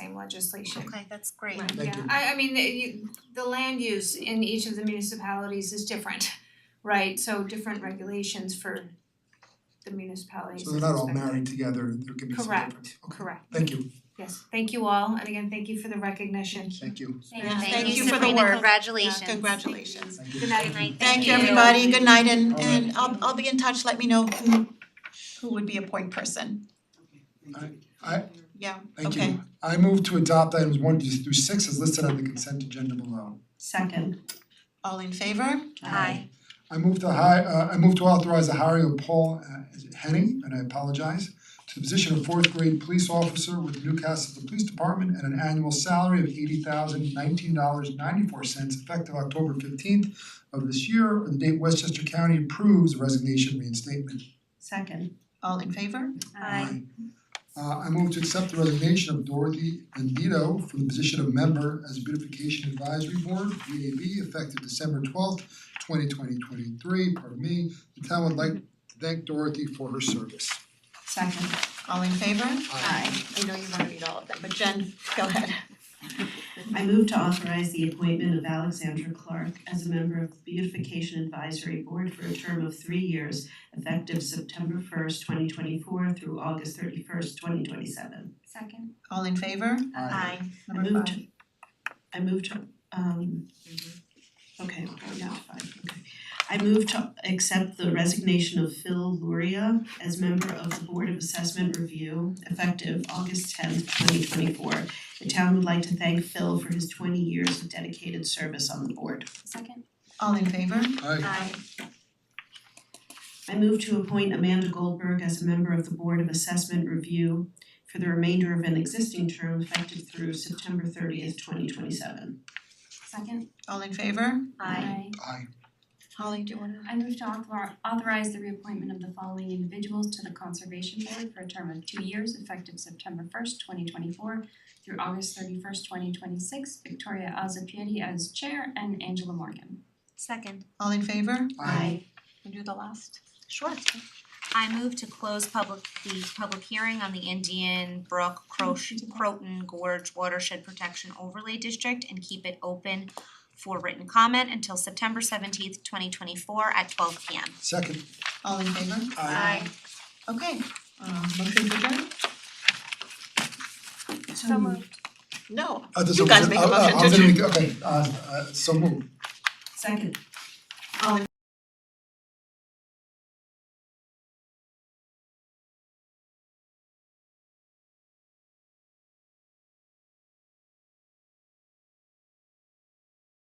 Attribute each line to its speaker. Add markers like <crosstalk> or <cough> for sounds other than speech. Speaker 1: same legislation.
Speaker 2: Okay, that's great.
Speaker 3: Right.
Speaker 4: Thank
Speaker 1: Yeah,
Speaker 4: you.
Speaker 1: I I mean, the you- the land use in each of the municipalities is different, <laughs> right? So different regulations for the municipalities.
Speaker 4: So they're not all
Speaker 1: is expected.
Speaker 4: married together, there could be some
Speaker 1: Correct.
Speaker 4: difference. Okay.
Speaker 1: Correct,
Speaker 4: Thank you,
Speaker 1: yes, thank you all, and again, thank you for the recognition.
Speaker 4: thank you,
Speaker 3: Yeah,
Speaker 2: Thank you
Speaker 3: for the
Speaker 2: Sabrina,
Speaker 3: work.
Speaker 2: congratulations.
Speaker 3: Congratulations.
Speaker 4: thank you.
Speaker 1: Good night.
Speaker 2: Good night,
Speaker 3: Thank
Speaker 2: thank
Speaker 3: you,
Speaker 2: you.
Speaker 3: everybody. Good night and
Speaker 4: All right.
Speaker 3: and I'll I'll be in touch. Let me know who who would be a point person.
Speaker 4: I-
Speaker 3: Yeah,
Speaker 4: Thank
Speaker 3: Okay.
Speaker 4: you. I move to adopt items one through six as listed on the consent agenda below.
Speaker 1: Second.
Speaker 3: all in favor?
Speaker 2: Aye.
Speaker 4: I move to hi- uh I move to authorize the hiring of Paul uh, is it Henning, and I apologize, to the position of fourth grade police officer with Newcastle Police Department at an annual salary of eighty thousand nineteen dollars ninety four cents effective October fifteenth of this year, or the date Westchester County approves the resignation reinstatement.
Speaker 1: Second.
Speaker 3: All in favor?
Speaker 1: Um,
Speaker 2: Aye.
Speaker 4: Uh I move to accept the resignation of Dorothy Andino from the position of member as Beautification Advisory Board, VAB, effective December twelfth, twenty twenty twenty three, pardon me. The town would like to thank Dorothy for her service.
Speaker 1: Second.
Speaker 3: All in favor?
Speaker 4: Aye.
Speaker 3: I know you wanna read all of them, but Jen, go ahead.
Speaker 5: I move to authorize the appointment of Alexandra Clark as a member of the Beautification Advisory Board for a term of three years effective September first, twenty twenty-four through August thirty-first, twenty twenty-seven.
Speaker 1: Second.
Speaker 3: All in favor?
Speaker 4: Aye.
Speaker 5: I
Speaker 3: Number
Speaker 5: move
Speaker 3: five.
Speaker 5: to, I move to, um, okay, we're going down to five, okay. I move to accept the resignation of Phil Luria as member of the Board of Assessment Review effective August tenth, twenty twenty-four. The town would like to thank Phil for his twenty years of dedicated service on the board.
Speaker 1: Second.
Speaker 3: All in favor?
Speaker 4: Aye.
Speaker 5: I move to appoint Amanda Goldberg as a member of the Board of Assessment Review for the remainder of an existing term effective through September thirtieth, twenty twenty seven.
Speaker 6: Second.
Speaker 3: All in favor?
Speaker 6: Aye.
Speaker 4: Aye.
Speaker 3: Holly, do you wanna?
Speaker 6: I move to author- authorize the reappointment of the following individuals to the Conservation Board for a term of two years effective September first, twenty twenty-four through August thirty-first, twenty twenty-six, Victoria Azapieti as chair and Angela Morgan.
Speaker 2: Second,
Speaker 3: All in favor?
Speaker 4: Aye.
Speaker 3: You do the last? Sure.
Speaker 2: I move to close public, the public hearing on the Indian Brook Croch- Croton Gorge Watershed Protection Overlay District and keep it open for written comment until September seventeenth, twenty twenty-four at twelve P M.
Speaker 4: Second.
Speaker 3: All in favor?
Speaker 2: Aye.
Speaker 3: Okay, um motion to adjourn?
Speaker 2: So moved.
Speaker 3: No,
Speaker 4: Uh, this-
Speaker 3: You guys make a
Speaker 4: uh, uh,
Speaker 3: motion to
Speaker 4: I was gonna make- okay, uh uh so move.
Speaker 5: Second.
Speaker 3: all in